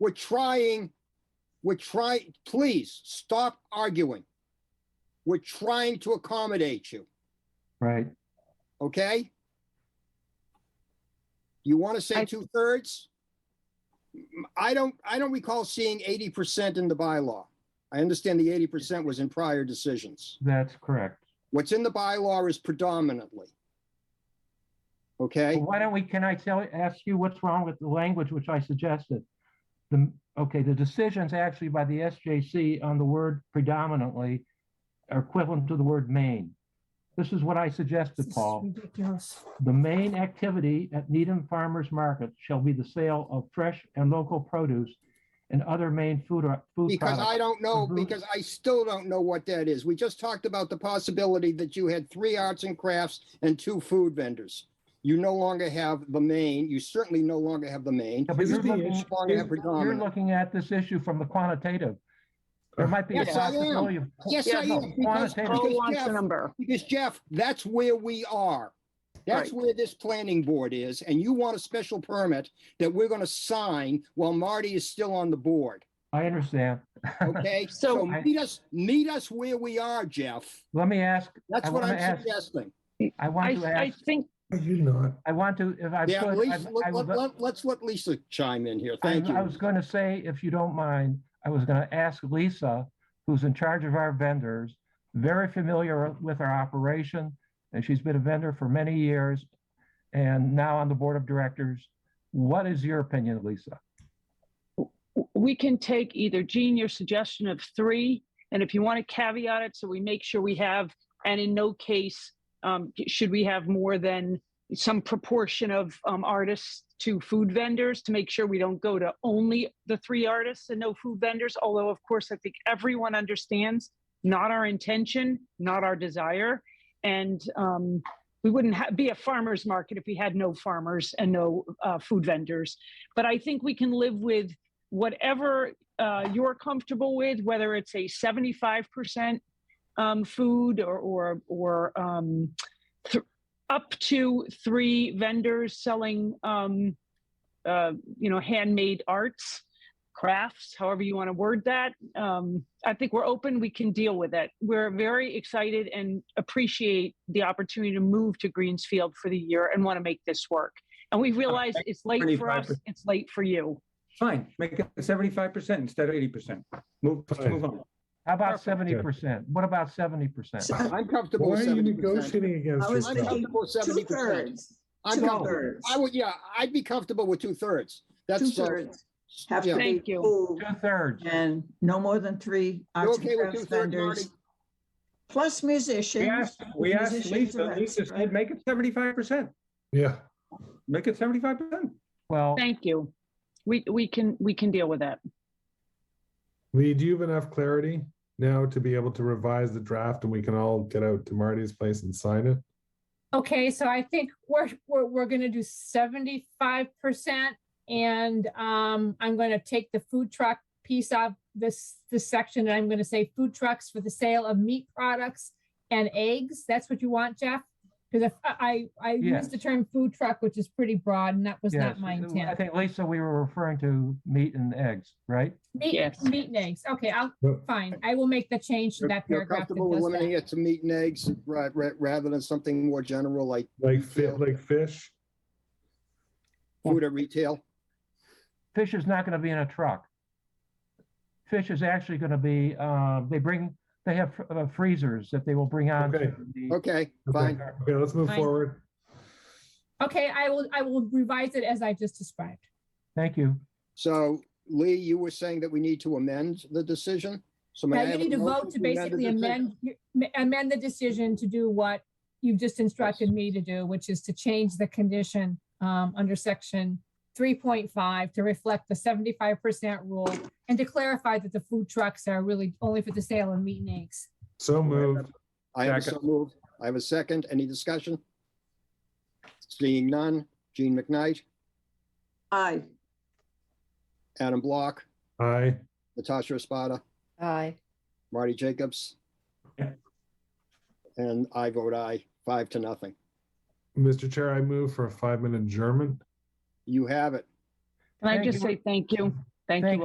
We're trying, we're trying, please stop arguing. We're trying to accommodate you, right? okay? You want to say I- two thirds? I don't, I don't recall seeing eighty percent in the bylaw. I understand the eighty percent was in prior decisions. That's correct. What's in the bylaw is predominantly. Well, Okay, Why don't we, can I tell, ask you what's wrong with the language which I suggested? The, okay, the decisions actually by the SJC on the word predominantly are equivalent to the word main. This is what I suggested, This is Paul. Ridiculous. The main activity at Needham Farmers Market shall be the sale of fresh and local produce and other main food or food because I products. don't know, Mhm. because I still don't know what that is. We just talked about the possibility that you had three arts and crafts and two food vendors. You no longer have the main, you certainly no longer have the main. Yeah, but You you're no looking- longer have You're predominant. looking at this issue from the quantitative. There might be a Yes, I am. possibility of. Yes, I No, am, because, quantitative. Paul because wants a Jeff, number. because Jeff, that's where we are. That's where this planning board is, and you want a special permit that we're gonna sign while Marty is still on the board. I understand. Okay, So- so meet us, meet us where we are, Jeff. Let me ask, That's I what wanna I'm ask- suggesting. I I, want to I ask, think, You not. I want to, if I Yeah, could, Lisa, I'm- I let, was- let, let- let's let Lisa chime in here. I Thank I you. was going to say, if you don't mind, I was going to ask Lisa, who's in charge of our vendors, very familiar with our operation, and she's been a vendor for many years and now on the board of directors. What is your opinion, Lisa? we can take either Gene, your suggestion of three, and if you want to caveat it, so we make sure we have, and in no case, um, should we have more than some proportion of um, artists to food vendors to make sure we don't go to only the three artists and no food vendors. Although, of course, I think everyone understands not our intention, not our desire, and um, we wouldn't ha- be a farmers market if we had no farmers and no uh, food vendors. But I think we can live with whatever uh, you're comfortable with, whether it's a 75% um, food or, or, or um, th- up to three vendors selling, um, uh, you know, handmade arts, crafts, however you want to word that. Um, I think we're open, we can deal with it. We're very excited and appreciate the opportunity to move to Greensfield for the year and want to make this work. And we realize it's late for us, 25%. it's late for you. Fine, make it seventy-five percent instead of eighty percent. Move, let's move on. How about Perfect. seventy percent? What about seventy percent? I'm comfortable with Why are you seventy percent. negotiating against I was I'm yourself? thinking- comfortable with seventy Two percent. thirds. I'm Two comfortable. thirds. I would, yeah, I'd be comfortable with two thirds. That's. Two uh, thirds have yeah. to be Thank you. food Two thirds. and no more than three You arts okay and with crafts two thirds, Marty? vendors. Plus musicians. We asked, we asked musicians Lisa, are Lisa extra. said, make it seventy-five percent, Yeah. make it seventy-five percent. Well, Thank you. We, we can, we can deal with that. Lee, do you have enough clarity now to be able to revise the draft and we can all get out to Marty's place and sign it? Okay, so I think we're, we're, we're gonna do seventy-five percent. And, um, I'm gonna take the food truck piece of this, this section, and I'm gonna say food trucks for the sale of meat products and eggs. That's what you want, Jeff? Because if, I, I I Yes. used the term food truck, which is pretty broad, and that was yes, uh, not my I intent. think Lisa, we were referring to meat and eggs, right? Meat, Yes. meat and eggs. Okay, I'll, Yep. fine. I will make the change to You're- that You're paragraph. that comfortable with does that. limiting it to meat and eggs ra- ra- rather than something more general like Like fit, Retail. like fish? food at retail? fish is not going to be in a truck. Fish is actually going to be, uh, they bring, they have fr- uh, freezers that they will bring on. to Okay. the- Okay, Okay. fine. Okay, let's move Fine. forward. Okay, I will, I will revise it as I just described. Thank you. So Lee, you were saying that we need to amend the decision? So may I Now have you a need to motion vote to amend the basically decision? amend, amend the decision to do what you've just instructed me to do, which is to change the condition um, under section three point five to reflect the seventy-five percent rule and to clarify that the food trucks are really only for the sale of meat and eggs. So moved. I have a so Second. moved. I have a second. Any discussion? Seeing none. Gene McKnight, Aye. Adam Block, Aye. Natasha Espada, Aye. Marty Jacobs. Yeah. And I vote aye, five to nothing. Mr. Chair, I move for a five minute adjournment. You have it. Can I Thank just you. say thank you? Thank Thank you